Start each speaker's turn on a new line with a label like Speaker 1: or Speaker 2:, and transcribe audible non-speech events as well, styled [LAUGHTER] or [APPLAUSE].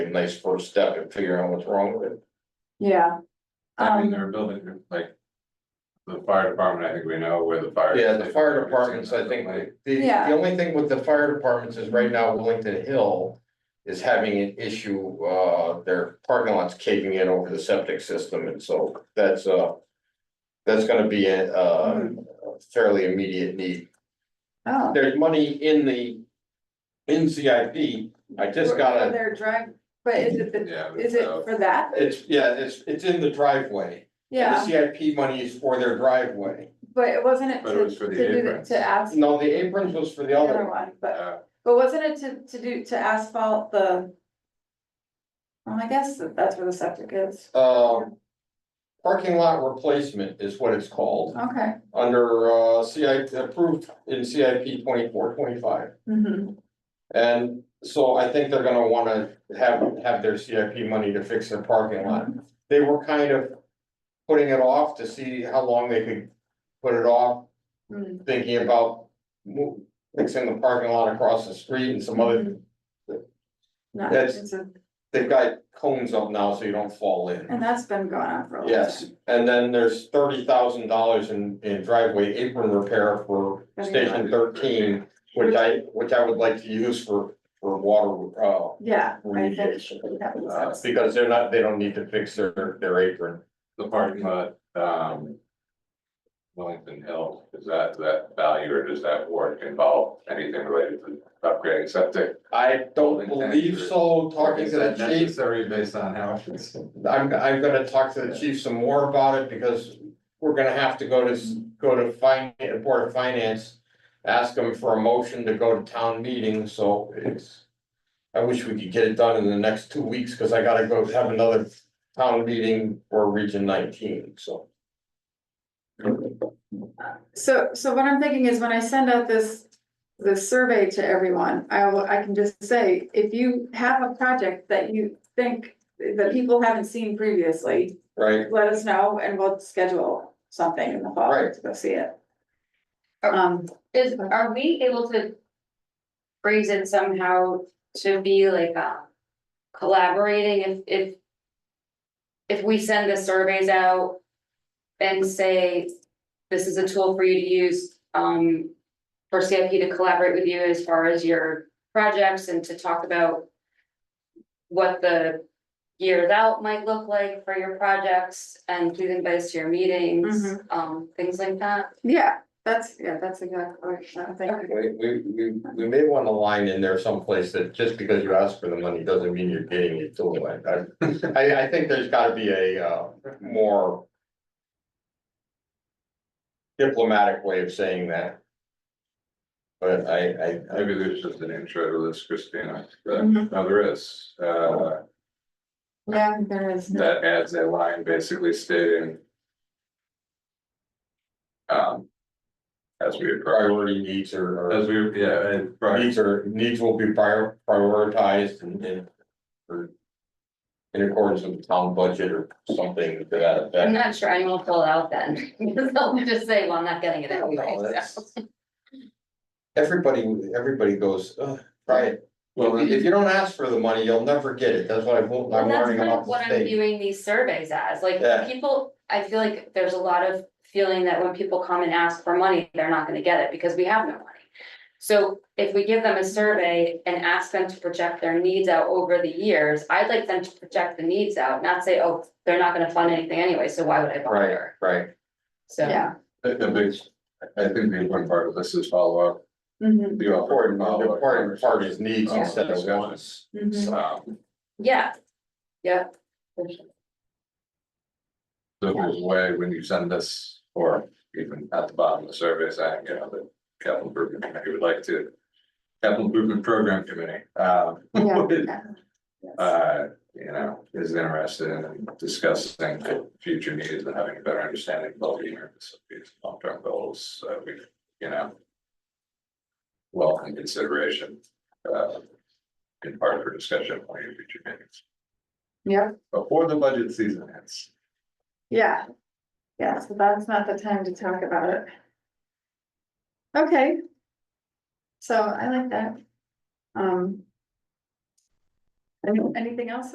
Speaker 1: a nice first step in figuring out what's wrong with it.
Speaker 2: yeah.
Speaker 3: I mean,
Speaker 2: Um,
Speaker 3: they're building, like. The fire department, I think we know where the fire.
Speaker 1: Yeah, the fire departments, I think, the,
Speaker 2: Yeah.
Speaker 1: the only thing with the fire departments is right now Wellington Hill. Is having an issue, uh, their parking lot's caving in over the septic system, and so that's, uh. That's gonna be a, uh,
Speaker 2: Mm-hmm.
Speaker 1: fairly immediate need.
Speaker 2: oh.
Speaker 1: There's money in the. In CIP, I just
Speaker 2: For-
Speaker 1: gotta.
Speaker 2: for Their drive, but is it the,
Speaker 3: Yeah.
Speaker 2: is it
Speaker 3: so-
Speaker 2: for that?
Speaker 1: It's, yeah, it's, it's in the driveway. The
Speaker 2: Yeah,
Speaker 1: CIP money is for their driveway.
Speaker 2: but it wasn't it
Speaker 3: But it
Speaker 2: to,
Speaker 3: was for
Speaker 2: to
Speaker 3: the
Speaker 2: do, the-
Speaker 3: aprons.
Speaker 2: to ask
Speaker 1: No, the aprons was for the
Speaker 2: the
Speaker 1: other one.
Speaker 2: other one, but,
Speaker 3: uh,
Speaker 2: but wasn't it to, to do, to asphalt the? Well, I guess that that's where the septic is,
Speaker 1: Um, parking lot replacement is what it's called,
Speaker 2: okay.
Speaker 1: under, uh, CIP, approved in CIP twenty-four, twenty-five.
Speaker 2: Mhm.
Speaker 1: And so I think they're gonna wanna have, have their CIP money to fix their parking lot.
Speaker 2: Mm-hmm.
Speaker 1: They were kind of putting it off to see how long they could put it off
Speaker 2: Mm.
Speaker 1: thinking about mo- fixing the parking lot across the street and some other,
Speaker 2: No,
Speaker 1: That's-
Speaker 2: it's a-
Speaker 1: they've got cones up now so you don't fall in.
Speaker 2: And that's been going on for a long time.
Speaker 1: Yes, and then there's thirty thousand dollars in, in driveway apron repair for station thirteen, which I, which I would like to use for, for water, uh,
Speaker 2: Yeah, I think
Speaker 1: remediation.
Speaker 2: that makes
Speaker 3: Uh,
Speaker 2: sense.
Speaker 1: because they're not, they don't need to fix their, their apron.
Speaker 3: The parking lot, um. Wellington Hill, is that, that value or does that work involve anything related to upgrading septic?
Speaker 1: I don't believe so, talking to the
Speaker 3: Is that
Speaker 1: chief,
Speaker 3: Necessary based on how it's.
Speaker 1: I'm, I'm gonna talk to the chief some more about it, because we're gonna have to go to, s- go to fin- Board of Finance. Ask them for a motion to go to town meeting, so it's. I wish we could get it done in the next two weeks, cause I gotta go have another town meeting for Region nineteen, so.
Speaker 2: So, so what I'm thinking is when I send out this, this survey to everyone, I will, I can just say, if you have a project that you think that people haven't seen previously,
Speaker 1: Right,
Speaker 2: let us know and we'll schedule something in the fall
Speaker 1: Right.
Speaker 2: to go see it. Um,
Speaker 4: Is, are we able to phrase it somehow to be like, um, collaborating if, if. If we send the surveys out and say, this is a tool for you to use, um. For CIP to collaborate with you as far as your projects and to talk about. What the years out might look like for your projects and please invite us to your meetings,
Speaker 2: Mhm.
Speaker 4: um, things like that.
Speaker 2: yeah, that's, yeah, that's exactly what I'm thinking.
Speaker 1: we, we, we, we may want a line in there someplace that just because you ask for the money doesn't mean you're getting it, so I, I, I think there's gotta be a, uh, more. Diplomatic way of saying that. But I, I, I,
Speaker 3: Maybe there's just an intro to this, Christina, but
Speaker 2: Mhm.
Speaker 3: no, there is, uh.
Speaker 2: Yeah, there is.
Speaker 3: that adds a line basically stating. Um. As we, approach-
Speaker 1: priority needs are,
Speaker 3: as
Speaker 1: are-
Speaker 3: we, yeah, and right,
Speaker 1: needs are, needs will be prior, prioritized and, and. or In accordance with the town budget or something to that effect.
Speaker 4: I'm not sure anyone will fill it out then, [LAUGHS] because they'll just say, well, I'm not getting it
Speaker 1: I don't know,
Speaker 4: anyway,
Speaker 1: that's-
Speaker 4: so.
Speaker 1: Everybody, everybody goes, "Ugh, try it. Well, if if you don't ask for the money, you'll never get it. That's what I've, learned-
Speaker 4: Well,
Speaker 1: I'm
Speaker 4: that's
Speaker 1: learning
Speaker 4: kind
Speaker 1: about
Speaker 4: of
Speaker 1: the
Speaker 4: what I'm
Speaker 1: state.
Speaker 4: viewing these surveys as, like,
Speaker 1: Yeah.
Speaker 4: people, I feel like there's a lot of feeling that when people come and ask for money, they're not gonna get it, because we have no money. So if we give them a survey and ask them to project their needs out over the years, I'd like them to project the needs out, not say, oh, they're not gonna fund anything anyway, so why would I
Speaker 1: Right,
Speaker 4: bother?
Speaker 1: right.
Speaker 4: So.
Speaker 2: Yeah.
Speaker 3: the the big, I think the important part of this is follow up.
Speaker 2: Mhm,
Speaker 3: The
Speaker 1: Important,
Speaker 3: follow up.
Speaker 1: the important part is needs instead of
Speaker 3: Yeah.
Speaker 1: wants.
Speaker 2: mhm.
Speaker 3: Um,
Speaker 4: Yeah, yeah. for sure.
Speaker 3: so if there's a way when you send this, or even at the bottom of the survey saying, you know, the capital improvement, committee would like to. Capital improvement program committee, um.
Speaker 2: Yeah.
Speaker 3: [LAUGHS] would
Speaker 2: Yes.
Speaker 3: uh, you know, is interested in discussing future needs and having a better understanding of the America's long-term goals, uh, we, you know. Well, in consideration, uh, in part for discussion on your future meetings,
Speaker 2: Yep,
Speaker 3: before the budget season ends.
Speaker 2: yeah. Yeah, so that's not the time to talk about it. Okay. So I like that. Um. Any- Anything else